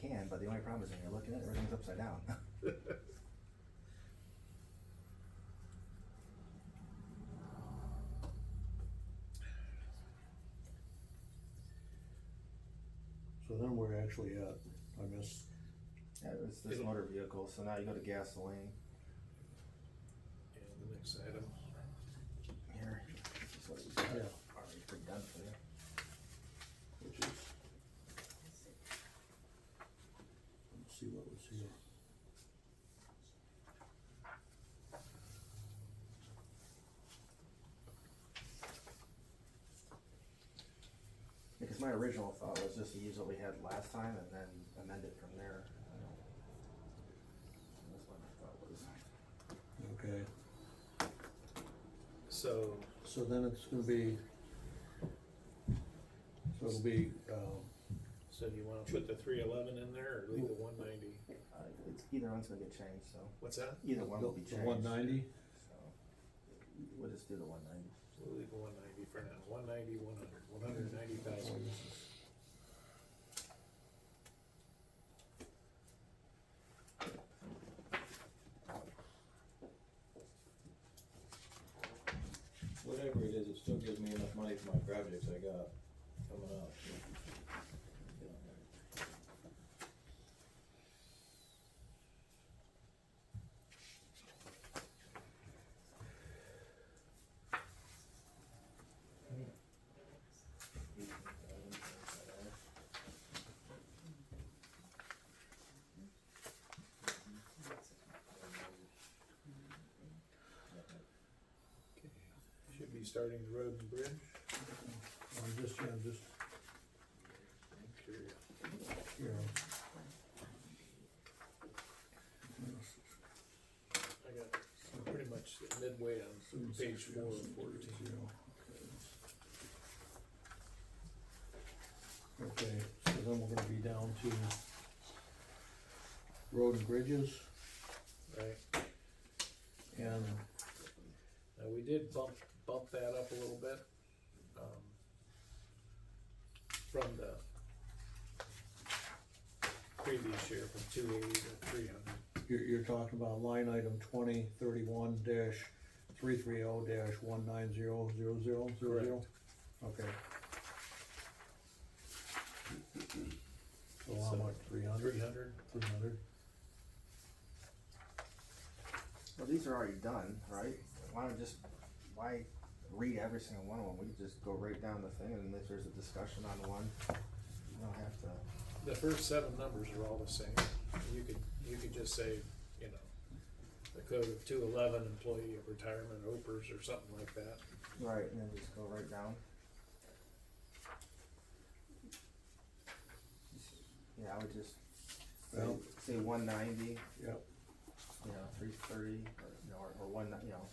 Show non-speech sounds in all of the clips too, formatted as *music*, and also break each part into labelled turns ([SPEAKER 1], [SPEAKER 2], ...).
[SPEAKER 1] said, the only problem is when you're looking at it, everything's upside down. *laughs*
[SPEAKER 2] So then we're actually at, I missed,
[SPEAKER 1] Yeah, it's this motor vehicle, so now you go to gasoline
[SPEAKER 3] And the next item,
[SPEAKER 1] here. this is what we got.
[SPEAKER 2] Yeah.
[SPEAKER 1] Already pre-done for you.
[SPEAKER 2] which is. Let's see what was here.
[SPEAKER 1] Because my original thought was just to use what we had last time and then amend it from there. So That's what my thought was.
[SPEAKER 2] Okay,
[SPEAKER 3] so
[SPEAKER 2] so then it's gonna be. So it'll be, um,
[SPEAKER 3] so do you wanna put the three eleven in there or leave the one ninety?
[SPEAKER 1] Uh, it's, either one's gonna get changed, so
[SPEAKER 3] What's that?
[SPEAKER 1] either one will be
[SPEAKER 2] the
[SPEAKER 1] changed.
[SPEAKER 2] one ninety,
[SPEAKER 1] So, We'll just do the one ninety.
[SPEAKER 3] We'll leave the one ninety for now, one ninety, one hundred, one hundred ninety thousand.
[SPEAKER 4] Whatever it is, it still gives me enough money for my projects I got coming up.
[SPEAKER 3] Should be starting the road and bridge.
[SPEAKER 2] I'm just, I'm just,
[SPEAKER 3] Make sure you-
[SPEAKER 2] you know.
[SPEAKER 3] I got pretty much midway on page four and fourteen.
[SPEAKER 2] Okay, so then we're gonna be down to road and bridges
[SPEAKER 3] Right,
[SPEAKER 2] and,
[SPEAKER 3] now we did bump, bump that up a little bit. um, From the previous year, from two eighty to three hundred.
[SPEAKER 2] you're, you're talking about line item twenty thirty-one dash three three oh dash one nine zero zero zero zero zero? Okay. So how much, three hundred?
[SPEAKER 3] Three hundred,
[SPEAKER 2] Three hundred?
[SPEAKER 1] Well, these are already done, right? Why don't just, why read every single one of them? We could just go right down the thing and if there's a discussion on one, you don't have to.
[SPEAKER 3] the first seven numbers are all the same, you could, you could just say, you know, the code of two eleven employee of retirement, opers or something like that.
[SPEAKER 1] Right, and then just go right down. Yeah, I would just say,
[SPEAKER 2] Well-
[SPEAKER 1] say one ninety,
[SPEAKER 2] Yep,
[SPEAKER 1] you know, three thirty, or, you know, or- or one, you know,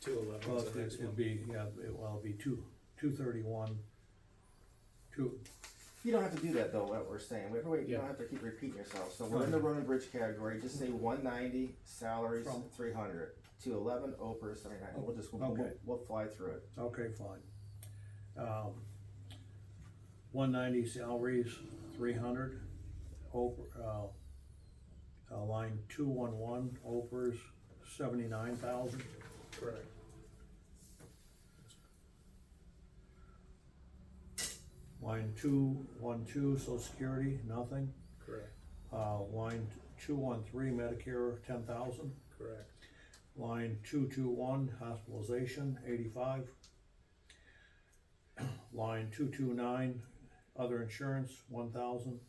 [SPEAKER 3] Two
[SPEAKER 2] well,
[SPEAKER 3] eleven's the next
[SPEAKER 2] it'd
[SPEAKER 3] one.
[SPEAKER 2] be, yeah, it, well, it'd be two, two thirty-one, two,
[SPEAKER 1] You don't have to do that though, what we're saying. Wait, wait, you don't
[SPEAKER 3] Yeah.
[SPEAKER 1] have to keep repeating yourself. So we're in the road and bridge category, just say one ninety, salaries
[SPEAKER 2] Mm-hmm. From-
[SPEAKER 1] three hundred, to eleven opers, I mean, I- we'll just, we'll,
[SPEAKER 2] Okay.
[SPEAKER 1] we'll fly through it.
[SPEAKER 2] Okay, fine. Um, one ninety salaries, three hundred, Oper, uh, uh, line two one one, Oprah's seventy-nine thousand.
[SPEAKER 3] Correct.
[SPEAKER 2] Line two one two, social security, nothing.
[SPEAKER 3] Correct,
[SPEAKER 2] Uh, line two one three, Medicare, ten thousand.
[SPEAKER 3] correct,
[SPEAKER 2] Line two two one, hospitalization, eighty-five. Line two two nine, other insurance, one thousand.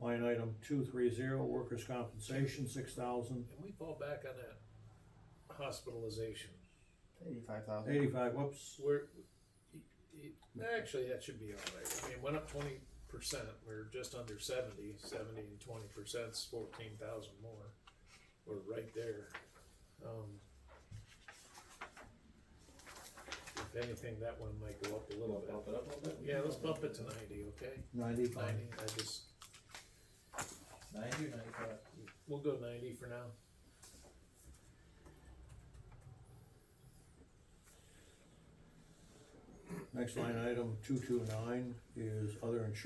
[SPEAKER 2] Line item two three zero, workers' compensation, six thousand.
[SPEAKER 3] and we fall back on that hospitalization,
[SPEAKER 1] Eighty-five thousand.
[SPEAKER 2] Eighty-five, whoops,
[SPEAKER 3] we're, y- y- actually, that should be all right, I mean, it went up twenty percent, we're just under seventy, seventy and twenty percent's fourteen thousand more. We're right there. Um, If anything, that one might go up a
[SPEAKER 4] We'll
[SPEAKER 3] little
[SPEAKER 4] bump it up a little bit.
[SPEAKER 3] bit, yeah, let's bump it to ninety, okay?
[SPEAKER 2] ninety-five.
[SPEAKER 3] Ninety, I just,
[SPEAKER 4] Ninety or ninety-five?
[SPEAKER 3] we'll go ninety for now,
[SPEAKER 2] Next line item, two two nine, is other insurance.